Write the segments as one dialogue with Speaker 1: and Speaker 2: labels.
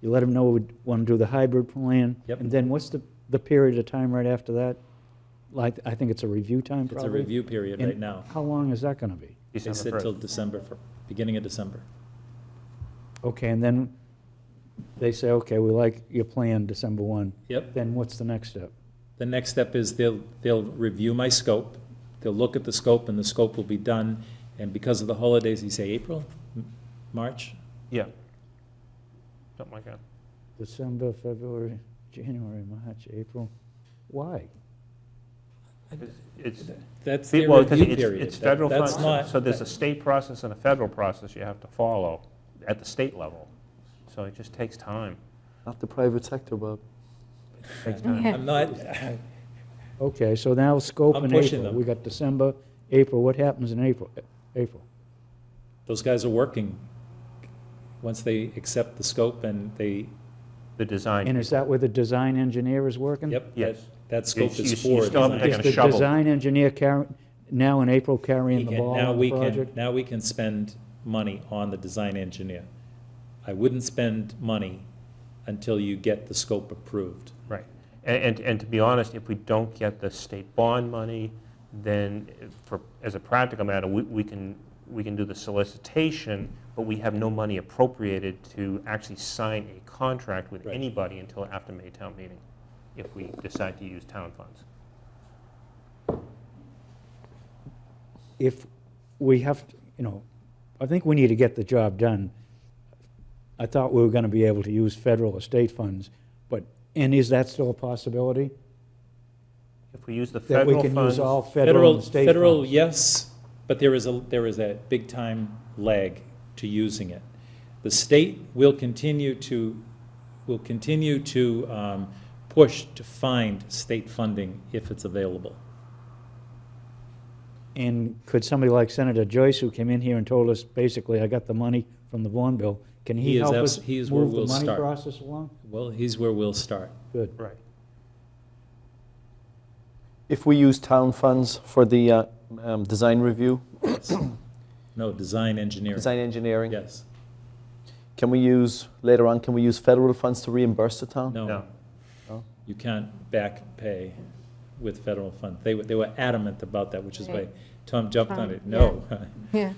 Speaker 1: You let them know we want to do the hybrid plan.
Speaker 2: Yep.
Speaker 1: And then what's the, the period of time right after that? Like, I think it's a review time
Speaker 2: It's a
Speaker 1: probably?
Speaker 2: review period
Speaker 1: And
Speaker 2: right now.
Speaker 1: How long is that going to be?
Speaker 2: They said
Speaker 3: December
Speaker 2: till
Speaker 3: 1st.
Speaker 2: December, fir- beginning of December.
Speaker 1: Okay, and then they say, okay, we like your plan December 1.
Speaker 2: Yep.
Speaker 1: Then what's the next step?
Speaker 2: The next step is they'll, they'll review my scope. They'll look at the scope and the scope will be done. And because of the holidays, you say April, M- March?
Speaker 3: Yeah. Something like that.
Speaker 1: December, February, January, March, April? Why?
Speaker 3: It's,
Speaker 2: That's
Speaker 3: fe-
Speaker 2: their
Speaker 3: well, 'cause
Speaker 2: review
Speaker 3: it's,
Speaker 2: period.
Speaker 3: it's federal
Speaker 2: That- That's
Speaker 3: funds,
Speaker 2: not,
Speaker 3: so there's a state process and a federal process you have to follow at the state level. So it just takes time.
Speaker 4: Not the private sector, Bob.
Speaker 3: Takes time.
Speaker 2: I'm not,
Speaker 1: Okay, so now scope
Speaker 2: I'm
Speaker 1: in
Speaker 2: pushing
Speaker 1: April.
Speaker 2: them.
Speaker 1: We got December, April. What happens in April? April.
Speaker 2: those guys are working. Once they accept the scope and they,
Speaker 3: The
Speaker 1: And
Speaker 3: design,
Speaker 1: is that where the design engineer is working?
Speaker 2: yep, that,
Speaker 3: Yes.
Speaker 2: that scope
Speaker 3: you- you
Speaker 2: is for.
Speaker 3: still haven't
Speaker 2: design.
Speaker 3: taken
Speaker 1: Is
Speaker 3: Taking a
Speaker 1: the
Speaker 3: shovel.
Speaker 1: design engineer carrying, now in April
Speaker 2: He
Speaker 1: carrying the
Speaker 2: can-
Speaker 1: ball
Speaker 2: now
Speaker 1: on
Speaker 2: we
Speaker 1: the
Speaker 2: can-
Speaker 1: project?
Speaker 2: Now we can spend money on the design engineer. I wouldn't spend money until you get the scope approved.
Speaker 3: right. And, and, and to be honest, if we don't get the state bond money, then for, as a practical matter, we, we can, we can do the solicitation, but we have no money appropriated to actually sign a contract with
Speaker 2: Right.
Speaker 3: anybody until after May town meeting, if we decide to use town funds.
Speaker 1: If we have, to- you know, I think we need to get the job done. I thought we were going to be able to use federal or state funds, but, and is that still a possibility?
Speaker 3: If we use the
Speaker 1: That we
Speaker 3: federal
Speaker 1: can use
Speaker 3: funds,
Speaker 1: all federal
Speaker 2: Federal,
Speaker 1: and state
Speaker 2: federal,
Speaker 1: funds?
Speaker 2: yes, but there is a, there is a big-time lag to using it. The state will continue to, will continue to um, push to find state funding if it's available.
Speaker 1: And could somebody like Senator Joyce, who came in here and told us, basically, I got the money from the Vaughn bill, can
Speaker 2: He
Speaker 1: he
Speaker 2: is
Speaker 1: help
Speaker 2: abs-
Speaker 1: us
Speaker 2: he is where
Speaker 1: move the
Speaker 2: we'll
Speaker 1: money
Speaker 2: start.
Speaker 1: process along?
Speaker 2: Well, here's where we'll start.
Speaker 1: Good.
Speaker 3: right.
Speaker 4: If we use town funds for the uh, um, design review,
Speaker 2: No, design engineering,
Speaker 4: design engineering,
Speaker 2: yes.
Speaker 4: can we use, later on, can we use federal funds to reimburse the town?
Speaker 2: No,
Speaker 3: No.
Speaker 4: No?
Speaker 2: you can't back pay with federal funds. They were, they were adamant about that, which is why
Speaker 5: Right.
Speaker 2: Tom jumped on
Speaker 5: Tom,
Speaker 2: it. No,
Speaker 5: Yeah,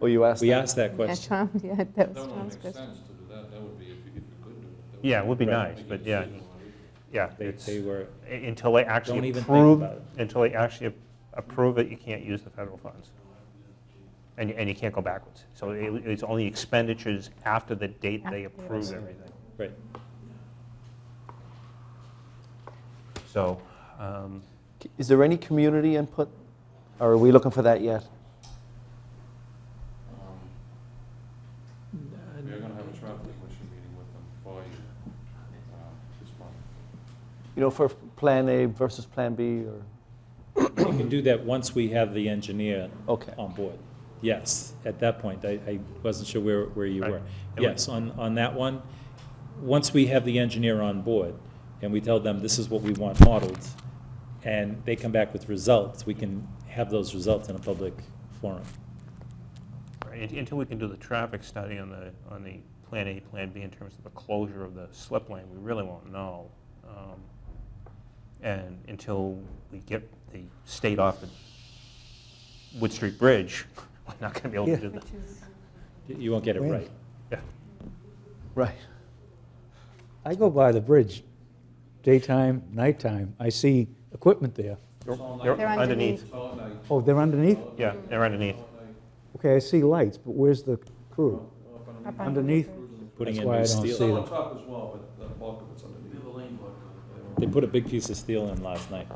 Speaker 4: Oh, you asked
Speaker 2: we
Speaker 4: that?
Speaker 2: asked that
Speaker 5: yeah,
Speaker 2: question.
Speaker 5: Tom, yeah, that was
Speaker 6: That would make
Speaker 5: Tom's
Speaker 6: sense
Speaker 5: question.
Speaker 6: to do that, that would be if you if you could do it. That would
Speaker 3: Yeah, it would be
Speaker 2: Right.
Speaker 3: nice,
Speaker 6: make a
Speaker 3: but yeah,
Speaker 6: decision on it.
Speaker 3: yeah,
Speaker 2: They,
Speaker 3: it's,
Speaker 2: they were,
Speaker 3: until they
Speaker 2: Don't
Speaker 3: actually
Speaker 2: even think
Speaker 3: approve,
Speaker 2: about it.
Speaker 3: until they actually approve it, you can't use the federal funds. And, and you can't go backwards. So it- it's only expenditures after the date they
Speaker 5: After.
Speaker 3: approve everything.
Speaker 2: right.
Speaker 3: So, um,
Speaker 4: Is there any community input, or are we looking for that yet?
Speaker 6: We are gonna have a traffic commission meeting with them for you, uh, this month.
Speaker 4: You know, for Plan A versus Plan B, or,
Speaker 2: We can do that once we have the engineer
Speaker 4: okay.
Speaker 2: on board. Yes, at that point, I, I wasn't sure where, where you
Speaker 3: Right.
Speaker 2: were.
Speaker 3: And we-
Speaker 2: Yes, on, on that one, once we have the engineer on board, and we tell them this is what we want modeled, and they come back with results, we can have those results in a public forum.
Speaker 3: right, until we can do the traffic study on the, on the Plan A, Plan B in terms of the closure of the slip lane, we really won't know. Um, And until we get the state off the Wood Street Bridge, we're not going to be able to do that.
Speaker 5: Which is,
Speaker 2: You won't get it
Speaker 1: When?
Speaker 2: right.
Speaker 4: Right.
Speaker 1: I go by the bridge, daytime, nighttime, I see equipment there.
Speaker 3: They're
Speaker 5: They're underneath.
Speaker 6: It's all at night,
Speaker 1: Oh, they're underneath?
Speaker 3: Yeah, they're underneath.
Speaker 1: Okay, I see lights, but where's the crew?
Speaker 6: up on-
Speaker 5: Up
Speaker 1: Underneath?
Speaker 2: Putting
Speaker 1: That's
Speaker 2: in
Speaker 1: why I
Speaker 2: new
Speaker 1: don't
Speaker 2: steel.
Speaker 6: It's
Speaker 1: see
Speaker 6: all
Speaker 1: them.
Speaker 6: on top as well, but the bulk of it's underneath. the lane
Speaker 2: They put a big piece of steel in last night.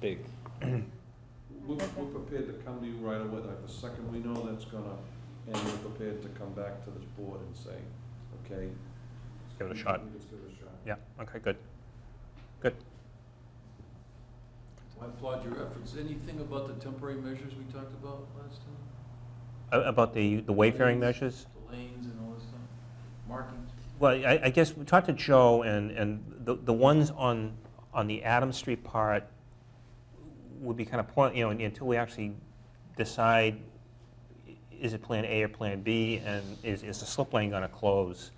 Speaker 2: Big.
Speaker 6: We're, we're prepared to come to you right away, like the second we know that's gonna, and we're prepared to come back to this board and say, okay.
Speaker 3: Give it a shot.
Speaker 6: Let's give it a shot.
Speaker 3: Yeah, okay, good.
Speaker 7: I applaud your efforts. Anything about the temporary measures we talked about last time?
Speaker 3: A- About the, the wayfaring measures?
Speaker 7: The lanes and all this stuff, markings?
Speaker 3: Well, I, I guess we talked to Joe, and, and the, the ones on, on the Adams Street part would be kind of point, you know, until we actually decide, is it Plan A or Plan B, and is, is the slip lane going to close?